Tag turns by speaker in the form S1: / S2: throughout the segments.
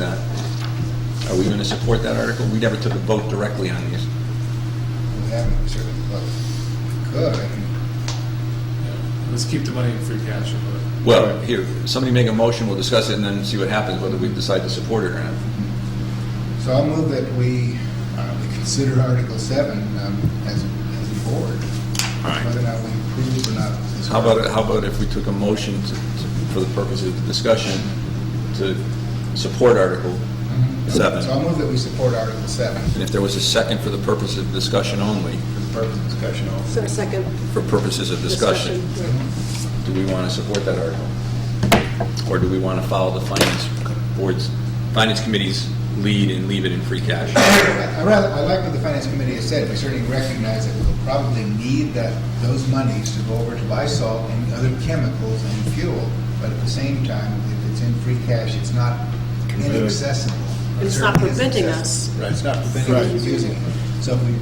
S1: that. Are we going to support that article? We never took a vote directly on these.
S2: We haven't certainly, but we could.
S3: Let's keep the money in free cash. and put it-
S1: Well, here, somebody make a motion, we'll discuss it, and then see what happens, whether we decide to support it or not.
S2: So I'll move that we, uh, we consider Article seven, um, as, as a board. Whether or not we approve or not. is-
S1: How about, how about if we took a motion to, to- for the purposes of discussion to support Article
S2: Mhm.
S1: Seven.
S2: So I'll move that we support Article seven
S1: And if there was a second for the purpose of discussion only,
S2: for the purpose of discussion only.
S4: So second.
S1: for purposes of discussion,
S4: Discussion,
S2: Mm-hmm.
S1: do we want to support that article? Or do we want to follow the finance board's, finance committee's lead and leave it in free cash?
S2: I I rather, I like what the finance committee has said, we certainly recognize that we'll probably need that, those monies to go over to buy salt and other chemicals and fuel, but at the same time, if it's in free cash, it's not inaccessible. It
S4: It's not
S2: certainly is
S4: preventing
S2: accessible.
S4: us.
S2: Right, it's not preventing us from using it. So if we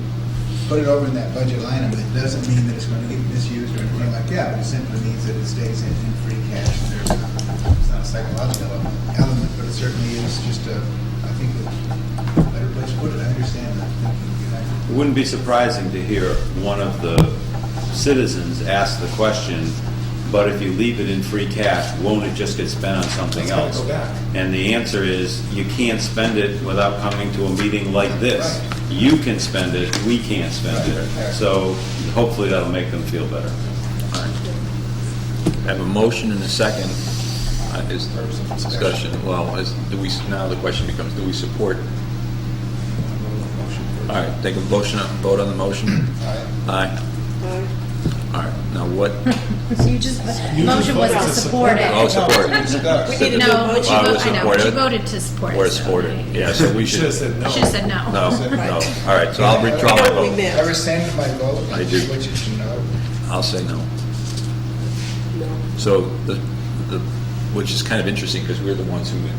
S2: put it over in that budget line, item, it doesn't mean that it's going to get misused or anything like that, it simply means that it stays in, in free cash. There's not, it's not a psychological element, but it certainly is just a, I think, a better place to put it, I understand that.
S5: It wouldn't be surprising to hear one of the citizens ask the question, but if you leave it in free cash, won't it just get spent on something
S3: It's gotta
S5: else?
S3: go back.
S5: And the answer is, you can't spend it without coming to a meeting like this.
S2: Right.
S5: You can spend it, we can't spend
S2: Right.
S5: it. So hopefully that'll make them feel better.
S1: I have a motion and a second. Uh, Is discussion, well, is, do we, now the question becomes, do we support? All right, take a motion, vote on the motion. Aye. All right, now what?
S6: So you just, the motion was to
S3: voted to
S6: support it.
S1: Oh, support.
S6: We didn't
S1: Wow,
S6: know, but you
S1: it was
S6: voted, I know, but you
S1: supported.
S6: voted to support it.
S1: Or
S6: so
S1: support
S6: I-
S1: it, yeah, so we
S3: You
S1: should.
S3: should've said no.
S6: I should've said no.
S1: No, no. All right, so I'll withdraw my
S4: Right. We
S1: vote.
S4: missed.
S2: I rescind my vote,
S1: I
S2: which
S1: do.
S2: is, you know,
S1: I'll say no.
S4: no,
S1: So the, the, which is kind of interesting because we're the ones who
S4: no.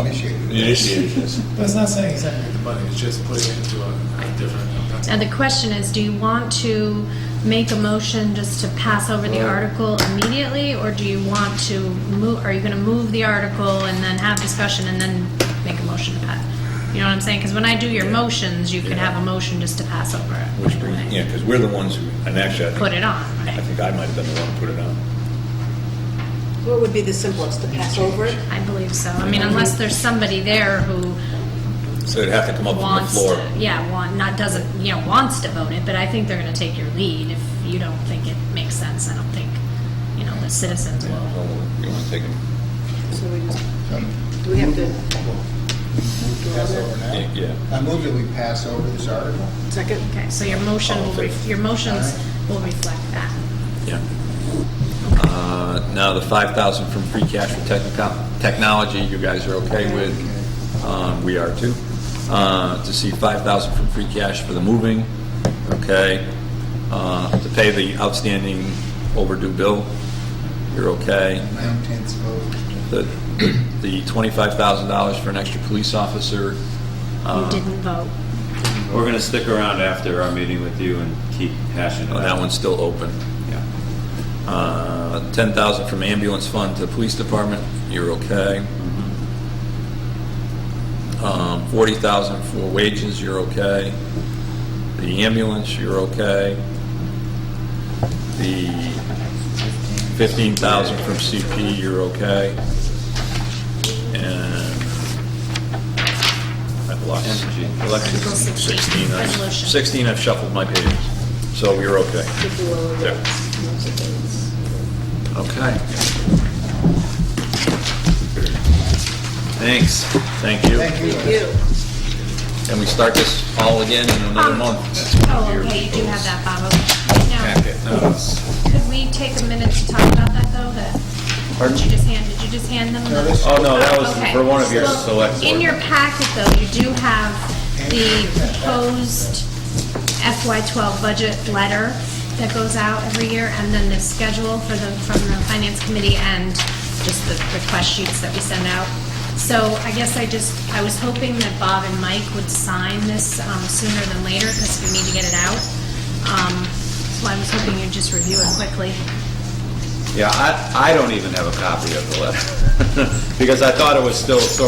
S2: Initiated.
S1: initiated this.
S3: That's not saying he's not gonna get the money, it's just putting it into a a different.
S6: And the question is, do you want to make a motion just to pass over
S1: Uh,
S6: the article immediately? Or do you want to move, are you gonna move the article and then have discussion and then make a motion to pass? You know what I'm saying? Because when I do your motions, you can
S1: Yeah.
S6: have a motion just to pass over it.
S1: Which,
S6: right
S1: brings-
S6: away.
S1: yeah, because we're the ones who, and actually, I think.
S6: Put it on,
S1: I
S6: right?
S1: think I might have been the one who put it on.
S4: What would be the simplest, to pass over it?
S6: I believe so. I mean, unless there's somebody there who
S1: So it'd have to come up from the
S6: wants
S1: floor.
S6: to, yeah, want, not doesn't, you know, wants to vote it, but I think they're gonna take your lead if you don't think it makes sense. I don't think, you know, the citizens will.
S1: Yeah, You want to take them?
S4: So we just,
S2: um,
S4: do we have to
S2: move to pass over now.
S1: Yeah.
S2: I move that we pass over this article.
S4: second?
S6: Okay, so your motion will, ref- your motions will reflect that.
S1: Yeah. Uh, Now, the 5,000 from free cash for technico- technology, you guys are okay with. Um, We are too. Uh, To see 5,000 from free cash for the moving, okay. Uh, To pay the outstanding overdue bill, you're okay.
S2: Nine tenths vote.
S1: The the $25,000 for an extra police officer.
S5: Uh,
S1: uh,
S6: You didn't vote.
S5: We're gonna stick around after our meeting with you and keep hashing it
S1: Oh,
S5: out.
S1: That one's still open.
S5: Yeah.
S1: Uh, 10,000 from ambulance fund to the police department, you're okay. Um, 40,000 for wages, you're okay. The ambulance, you're okay. The 15,000 from CP, you're okay. And I've lost,
S5: Energy.
S1: election
S6: Article 16,
S1: 16, I've-
S6: resolution.
S1: 16, I've shuffled my pages, so you're okay.
S4: If you will,
S1: There.
S4: that's- that's-
S1: Okay. Thanks. Thank you.
S2: Thank
S4: Thank you.
S1: And we start this all again in another
S6: Um,
S1: month.
S6: Oh, okay, you do have that, Bob. Okay. Now, could we take a minute to talk about that, though, that,
S1: Pardon?
S6: did you just hand, did you just hand them? the-
S2: this-
S5: Oh, no, that was
S6: Okay.
S5: for one of your
S6: Well,
S5: select.
S6: In
S5: board
S6: your packet, though, you do have the proposed FY12 budget letter that goes out every year, and then the schedule for the, from the finance committee, and just the request sheets that we send out. So I guess I just, I was hoping that Bob and Mike would sign this um, sooner than later, because we need to get it out. Um, So I was hoping you'd just review it quickly.
S5: Yeah, I, I don't even have a copy of the letter, because I thought it was still sort